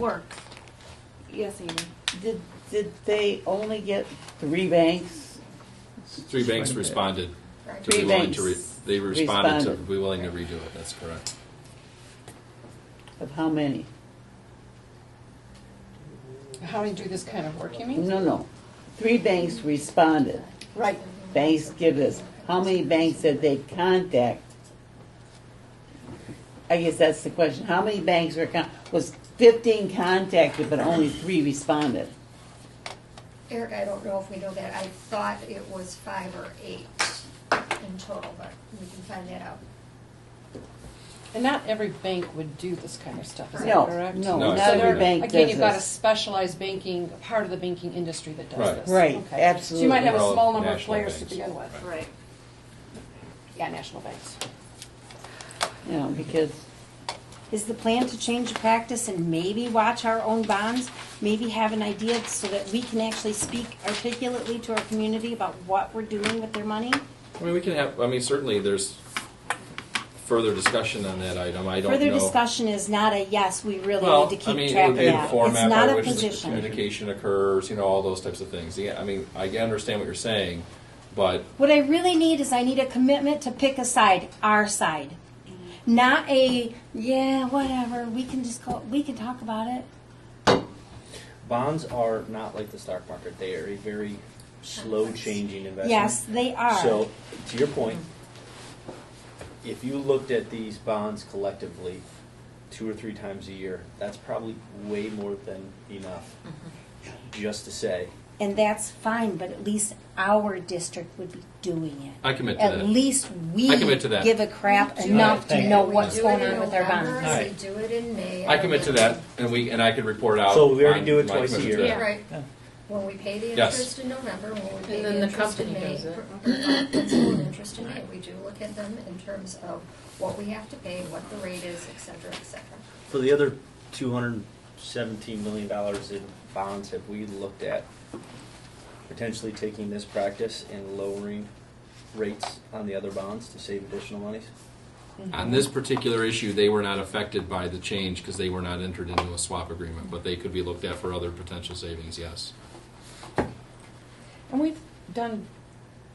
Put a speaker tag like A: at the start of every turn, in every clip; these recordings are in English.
A: work. Yes, Amy.
B: Did, did they only get three banks?
C: Three banks responded to
B: Three
C: be willing to, re-
B: banks
C: they responded to
B: responded.
C: be willing to redo it, that's correct.
B: Of how many?
D: How do you do this kind of work, you mean?
B: No, no. Three banks responded.
D: Right,
B: Banks give us, how many banks did they contact? I guess that's the question. How many banks were, con- was fifteen contacted, but only three responded?
E: Eric, I don't know if we know that. I thought it was five or eight in total, but we can find that out.
D: and not every bank would do this kind of stuff, is
B: No,
D: that correct?
B: no,
C: No, not
D: So
C: every
D: there-
B: bank
D: Again,
B: does
D: you've got a
B: this.
D: specialized banking, part of the banking industry that does
C: Right.
D: this.
B: Right,
D: Okay. So
B: absolutely.
D: you might have a
C: They're all
D: small number of
C: national
D: players to
C: banks.
D: begin with.
A: Right.
D: Yeah, national banks.
B: You know, because,
F: Is the plan to change the practice and maybe watch our own bonds? Maybe have an idea so that we can actually speak articulately to our community about what we're doing with their money?
C: I mean, we can have, I mean, certainly there's further discussion on that item, I don't know.
F: Further discussion is not a yes, we really
C: Well,
F: need to
C: I
F: keep
C: mean, it
F: track
C: would
F: of
C: be the
F: that. It's
C: format by
F: not a
C: which the
F: position.
C: Communication occurs, you know, all those types of things. Yeah, I mean, I can understand what you're saying, but
F: What I really need is I need a commitment to pick a side, our side.
A: Mm-hmm.
F: Not a, yeah, whatever, we can just call, we can talk about it.
G: Bonds are not like the stock market. They are a very slow changing investment.
F: Yes, they are.
G: So, to your point, if you looked at these bonds collectively two or three times a year, that's probably way more than enough
F: Mm-hmm.
G: just to say,
F: And that's fine, but at least our district would be doing it.
C: I commit to
F: At
C: that.
F: least we
C: I commit to that.
F: give a crap
E: We do
F: enough
G: it.
F: to
G: Thank
F: know
G: you.
E: We
F: what's
E: do
F: going
E: it in
F: on with our
E: November,
F: bonds.
G: bonds.
E: We do it in May.
C: I commit to that, and we, and I could report out.
G: So we already
C: on
G: do it
C: my
G: twice a
C: commitment
G: year.
C: to that.
G: Yeah.
E: Right. When we pay the
C: Yes.
E: interest in November, when we pay
H: And then
E: the
H: the
E: interest in
H: company
E: May.
H: does it.
E: or- or principal and interest in May, we do look at them in terms of what we have to pay, what the rate is, et cetera, et cetera.
G: for the other $217 million in bonds, have we looked at potentially taking this practice and lowering rates on the other bonds to save additional monies?
D: Mm-hmm.
C: On this particular issue, they were not affected by the change because they were not entered into a swap agreement, but they could be looked at for other potential savings, yes.
D: And we've done,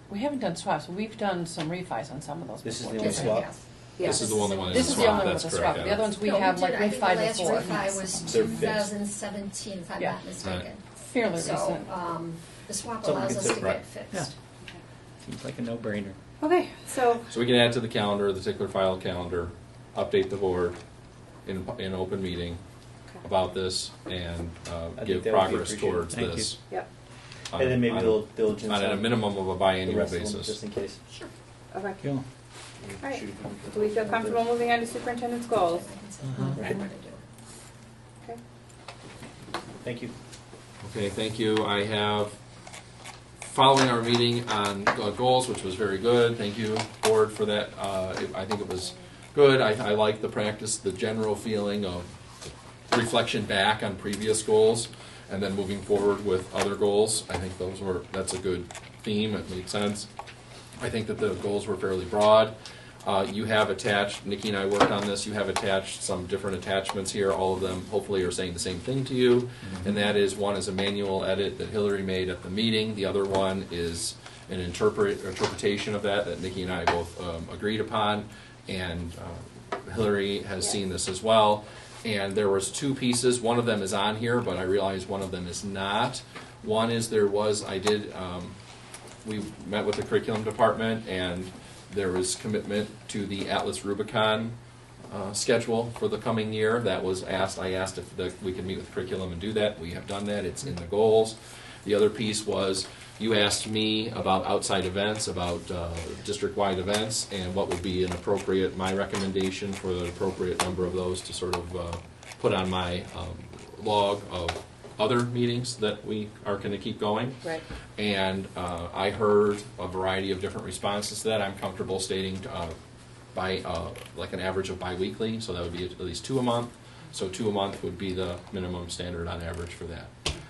D: we haven't done swaps, but we've done some refis on some of those.
G: This is
D: before,
G: the
D: too,
G: only
D: right?
G: swap.
E: Yes.
C: This is the only one that's
D: This
C: a
D: is the
C: swap,
D: only one
C: that's
D: with a
C: correct.
D: swap. The other
C: Adam.
D: ones we
E: No,
D: have
E: did.
D: like
E: I think the
D: refi
E: last
D: before.
E: refi was
G: They're
E: two
G: fixed.
E: thousand seventeen, if I'm
D: Yeah.
E: not mistaken.
D: Fairly
E: So,
D: recent.
E: um, the swap
G: Something
E: allows us to
G: considered.
E: get
C: Right.
E: fixed.
G: Seems like a no-brainer.
A: Okay, so
C: So we can add to the calendar, the tickler file calendar, update the board in, in open meeting about this and uh, give
G: think that would be
C: progress
G: appreciated.
C: towards
G: Thank you.
C: this.
A: Yep.
C: on-
G: And then maybe
C: on-
G: they'll diligence
C: On a
G: on
C: minimum of a
G: the
C: biannual
G: rest of them,
C: basis.
G: just in case.
A: okay.
I: Cool.
A: right. Do we feel comfortable moving on to superintendent's goals?
E: I can say,
D: Uh-huh.
E: I'm
G: Right.
E: gonna do it.
A: Okay.
G: Thank you.
C: Okay, thank you. I have, following our meeting on uh, goals, which was very good, thank you, board, for that. Uh, it- I think it was good. I, I like the practice, the general feeling of reflection back on previous goals and then moving forward with other goals. I think those were, that's a good theme. It made sense. I think that the goals were fairly broad. Uh, you have attached, Nikki and I worked on this, you have attached some different attachments here. All of them hopefully are saying the same thing to you. And that is, one is a manual edit that Hillary made at the meeting. The other one is an interpret, interpretation of that that Nikki and I both um, agreed upon. And uh, Hillary has seen this as well. And there was two pieces. One of them is on here, but I realize one of them is not. One is there was, I did, um, we met with the curriculum department and there was commitment to the Atlas Rubicon uh, schedule for the coming year. That was asked, I asked if the- we could meet with curriculum and do that. We have done that, it's in the goals. The other piece was, you asked me about outside events, about uh, district-wide events, and what would be an appropriate, my recommendation for the appropriate number of those to sort of uh, put on my um, log of other meetings that we are going to keep going.
D: Right.
C: And uh, I heard a variety of different responses to that. I'm comfortable stating uh, by, uh, like an average of biweekly, so that would be at least two a month. So two a month would be the minimum standard on average for that.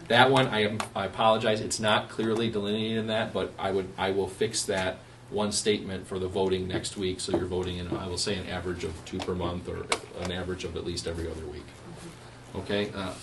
C: That one, I am, I apologize, it's not clearly delineated in that, but I would, I will fix that one statement for the voting next week, so you're voting in, I will say an average of two per month, or an average of at least every other week. Okay, Uh,